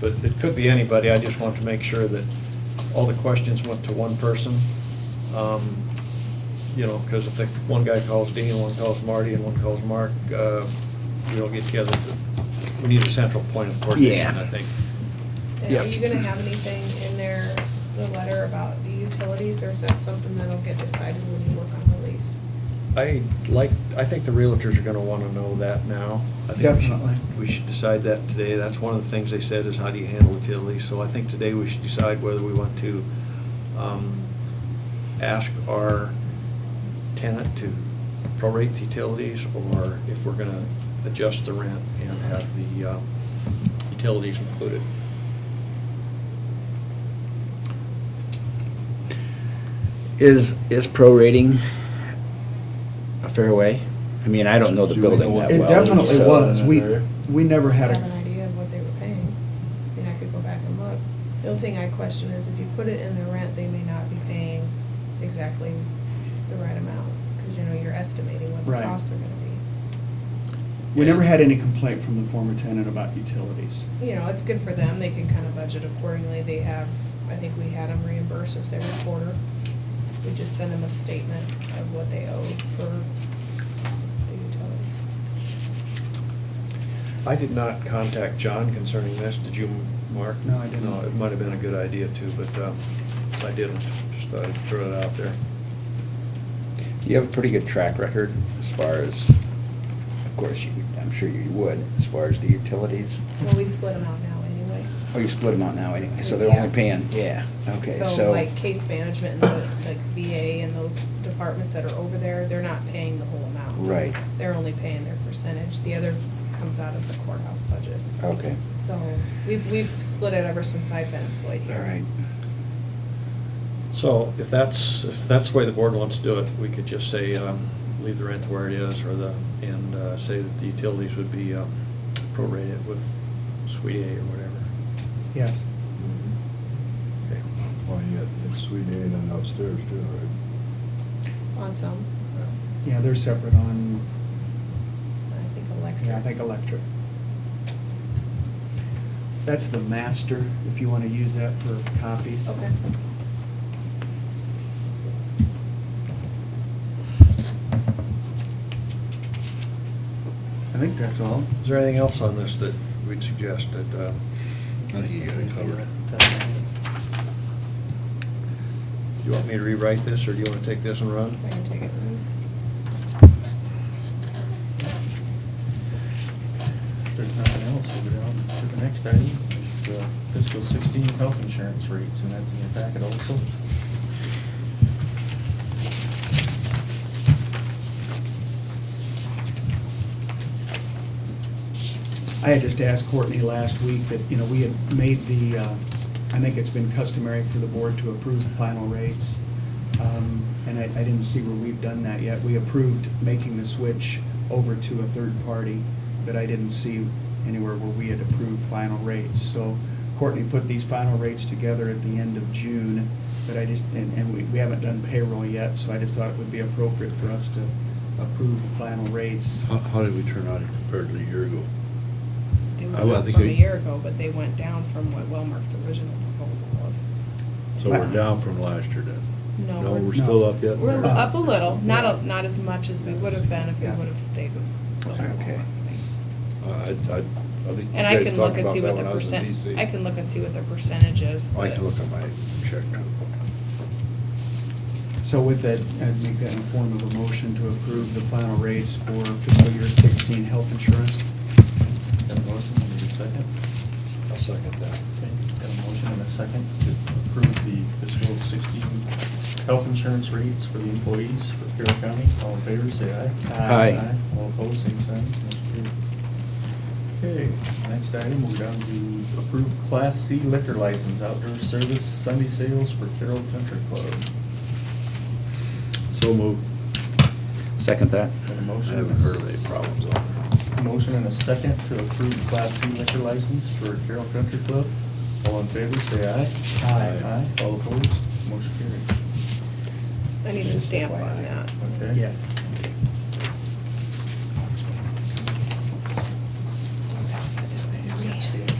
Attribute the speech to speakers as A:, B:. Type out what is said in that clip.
A: But it could be anybody, I just want to make sure that all the questions went to one person. Um, You know, because if the- one guy calls Dean, one calls Marty, and one calls Mark, uh, we don't get together. We need a central point of coordination,
B: Yeah.
A: I think.
C: And
B: Yeah.
C: Are you gonna have anything in there, the letter about the utilities, or is that something that'll get decided when you work on the lease?
A: I like, I think the realtors are gonna wanna know that now. I think we should-
B: Definitely.
A: We should decide that today. That's one of the things they said is how do you handle utilities? So I think today we should decide whether we want to, um, ask our tenant to prorate the utilities or if we're gonna adjust the rent and have the, uh, utilities included.
B: Is, is prorating a fair way? I mean, I don't know the
D: Do we
B: building
D: know
B: that
D: what-
B: well.
E: It definitely
B: so- uh,
E: was. We,
D: another-
E: we never had
C: Have an
E: a,
C: idea of what they were paying. I mean, I could go back and look. The only thing I question is if you put it in the rent, they may not be paying exactly the right amount, because you know, you're estimating what the
E: Right.
C: costs are gonna
E: we never had any complaint from the former tenant about utilities.
C: be. You know, it's good for them, they can kind of budget accordingly, they have, I think we had them reimburse us every quarter. We just send them a statement of what they owe for the utilities.
A: I did not contact John concerning this. Did you, Mark?
E: No, I didn't.
A: No, it might have been a good idea too, but um, I didn't. Just thought I'd throw it out there.
B: You have a pretty good track record as far as, of course, you, I'm sure you would, as far as the utilities.
C: Well, we split them out now anyway.
B: Oh, you split them out now anyway, so they're only
C: Yeah.
B: paying, yeah, okay, so.
C: So like case management and the, like VA and those departments that are over there, they're not paying the whole amount.
B: Right.
C: They're only paying their percentage. The other comes out of the courthouse budget.
B: Okay,
C: So we've, we've split it ever since I've been employed
B: all
C: here.
B: right.
A: So if that's, if that's the way the board wants to do it, we could just say, um, leave the rent where it is or the, and uh, say that the utilities would be um, prorated with Suite A or whatever.
E: Yes.
A: Okay.
D: Well, yeah, it's Suite A and then upstairs too, right?
C: On some,
E: Yeah, they're separate on,
C: I think electric.
E: yeah, I think electric. That's the master, if you want to use that for copies.
C: Okay.
E: I think that's all.
A: Is there anything else on this that we'd suggest that? um,
B: I think you got it covered.
A: Do you want me to rewrite this or do you want to take this and run?
C: I can take it.
F: If there's nothing else, we'll go down to the next item, is uh, fiscal sixteen health insurance rates, and that's in your packet also.
E: I had just asked Courtney last week that, you know, we had made the, uh, I think it's been customary for the board to approve the final rates. Um, And I, I didn't see where we've done that yet. We approved making the switch over to a third party, but I didn't see anywhere where we had approved final rates. So Courtney put these final rates together at the end of June, but I just, and, and we, we haven't done payroll yet, so I just thought it would be appropriate for us to approve the final rates.
G: How, how did we turn out compared to a year ago?
C: They
G: Oh, I
C: went up
G: think
C: from a
G: we-
C: year ago, but they went down from what Wellmark's original proposal was.
G: So we're down from last year then?
C: No,
G: No,
C: we're-
G: we're still up yet?
C: We're
E: Uh,
C: up a little, not, a- not as much as we would have been if we
E: Yeah.
C: would have stayed with the whole
B: Okay.
G: I, I, I think you
C: And I
G: guys
C: can
G: talked
C: look and
G: about
C: see
G: that
C: what
G: when
C: the
G: I was in
C: percent,
G: DC.
C: I can look and see what the percentage is.
G: I can
C: but-
G: look at my check.
E: So with that, I'd make that in the form of a motion to approve the final rates for fiscal year 16 health insurance.
F: Got a motion, we need a second.
A: I'll second that.
F: Okay, Got a motion and a second to approve the fiscal sixteen health insurance rates for the employees for Carroll County. All in favor, say aye.
B: Aye.
F: All opposed, same sign. Motion carries. Okay, next item, we're down to approve Class C liquor license, outdoor service, Sunday sales for Carroll Country Club.
G: So moved.
B: Second that.
F: Got a
G: I
F: motion?
G: haven't heard of any problems on that.
F: Motion and a second to approve Class C liquor license for Carroll Country Club. All in favor, say aye.
G: Aye.
F: Aye. All opposed, motion carries.
C: I need a stamp on that.
F: Okay?
E: Yes.
C: Pass that down.